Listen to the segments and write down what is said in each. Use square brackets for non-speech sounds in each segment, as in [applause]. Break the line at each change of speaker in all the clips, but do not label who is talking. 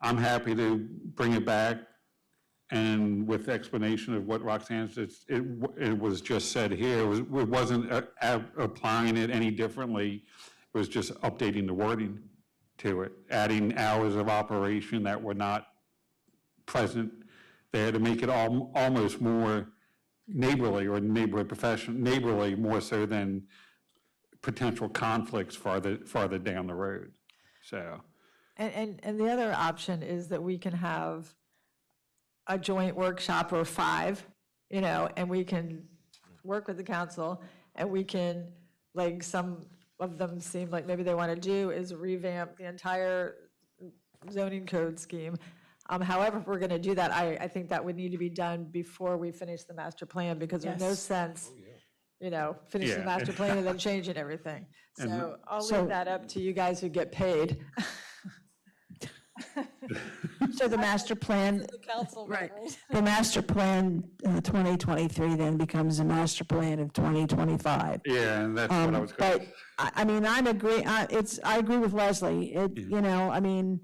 I'm happy to bring it back and with explanation of what Roxanne said, it, w- it was just said here, it was- it wasn't uh, a- applying it any differently. It was just updating the wording to it, adding hours of operation that were not present there to make it al- almost more neighborly or neighborly profession, neighborly more so than potential conflicts farther, farther down the road. So,
And, and, and the other option is that we can have a joint workshop or five, you know, and we can work with the council, and we can, like, some of them seem like maybe they want to do is revamp the entire zoning code scheme. Um, However, if we're going to do that, I, I think that would need to be done before we finish the master plan, because there's no
Yes.
sense, you know,
Oh,
finishing the
Yeah. [laughs]
master plan and then changing everything. So I'll
So-
leave that up to you guys who get paid.
So the master plan,
council members.
the master plan uh, 2023 then becomes the master plan of 2025.
yeah, and that's what I was going to
Um, But, I, I mean, I'm agree, I, it's, I agree with Leslie, it,
Mm-hmm.
you know, I mean,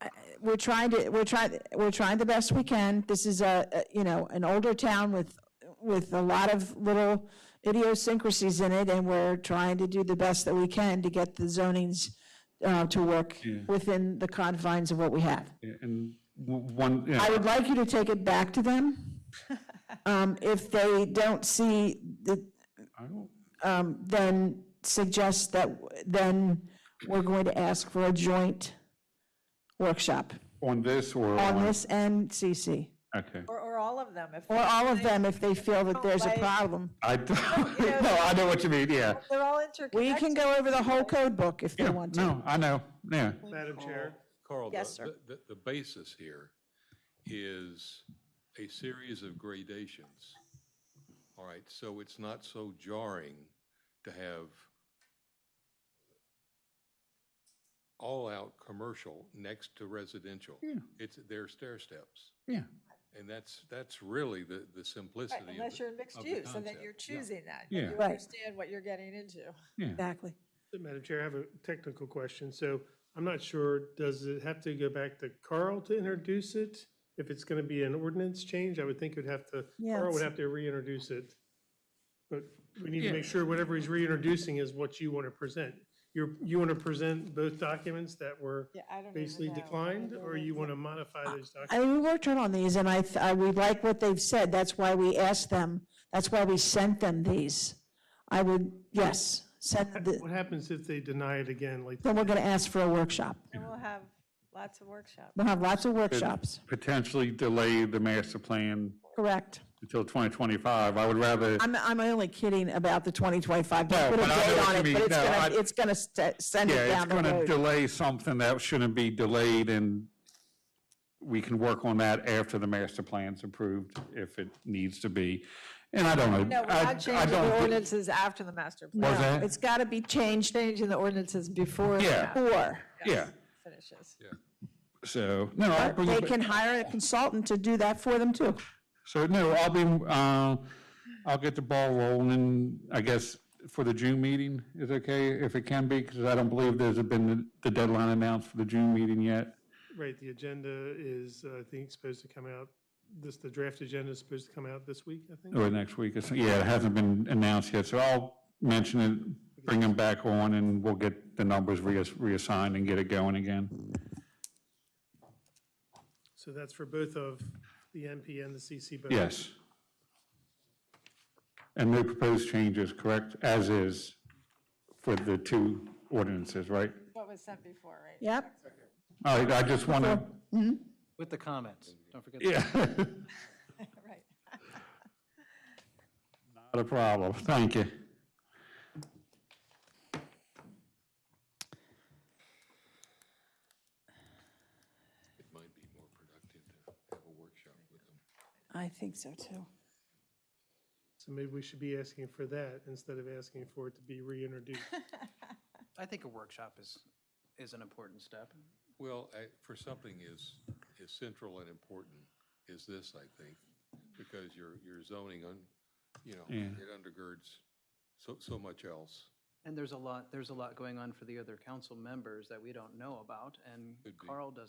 I- we're trying to, we're trying, we're trying the best we can, this is a, a- you know, an older town with, with a lot of little idiosyncrasies in it, and we're trying to do the best that we can to get the zonings, uh, to work
Mm.
within the confines of what we have.
And w- one, yeah,
I would like you to take it back to them. Um, If they don't see, the- um, then suggest that, then we're going to ask for a joint workshop
on this or
on
on,
this and CC,
okay.
Or, or all of them, if,
or all of them if they feel that there's a
Like-
problem.
I, d- [laughs] no, I know what you mean, yeah.
they're all
We
interconnected.
can go over the whole code book if they
Yeah,
want to.
No, I know, yeah.
Madam Chair?
Carl, the-
Yes, sir.
the, the- the basis here is a series of gradations. All right, so it's not so jarring to have all-out commercial next to residential. It's, they're stair steps.
Yeah.
And that's, that's really the, the simplicity
Right,
of it.
Unless you're in mixed
of the
use, and then you're
concept, yeah.
choosing that.
Yeah.
You
Right.
understand what you're getting into.
Exactly.
Madam Chair, I have a technical question. So I'm not sure, does it have to go back to Carl to introduce it? If it's going to be an ordinance change, I would think it would have to,
Yeah,
Carl would
it's-
have to reintroduce it. But we need
Yeah.
to make sure whatever he's reintroducing is what you want to present. You're, you want to present both documents that were
Yeah, I don't even
basically
know.
declined, or you want to modify those
I
documents?
mean, we worked hard on these, and I, th- I, we like what they've said, that's why we asked them, that's why we sent them these. I would, yes, send the,
What happens if they deny it again? Like,
then we're gonna ask for a workshop.
And we'll have lots of workshops.
We'll have lots of workshops,
Potentially delay the master plan
correct?
until 2025. I would rather,
I'm, I'm only kidding about the 2025,
No,
don't put a
but I know
date
what
on
you
it,
mean.
but it's
No,
gonna,
I-
it's gonna st- send it
yeah, it's
down
going to
the road.
delay something that shouldn't be delayed and we can work on that after the master plan's approved if it needs to be. And I don't know.
No, we're
I- I
not changing
don't
the
thi-
ordinances after the master plan.
Was that?
It's gotta be changed
Changing the ordinances before the
Yeah.
master
before,
Yeah,
finishes.
so, no, I'll bring
they
it back.
can hire a consultant to do that for them too.
So, no, I'll be, uh, I'll get the ball rolling, I guess, for the June meeting is okay, if it can be, because I don't believe there's been the deadline announced for the June meeting yet.
right, the agenda is, uh, I think, supposed to come out, this, the draft agenda is supposed to come out this week, I think?
Or next week, or so, yeah, it hasn't been announced yet, so I'll mention it, bring them back on, and we'll get the numbers reass- reassigned and get it going again.
So that's for both of the NP and the CC both?
Yes. And no proposed changes, correct, as is for the two ordinances, right?
What was sent before, right?
Yep,
All right, I just want to,
With the comments, don't forget. the
[laughs] yeah.
Right.
Not a problem, thank you.
It might be more productive to have a workshop with them.
I think so too.
So maybe we should be asking for that instead of asking for it to be reintroduced.
I think a workshop is, is an important step.
Well, I, for something as, as central and important as this, I think, because your, your zoning on, you know, it undergirds so, so much else.
And there's a lot, there's a lot going on for the other council members that we don't know about, and Carl doesn't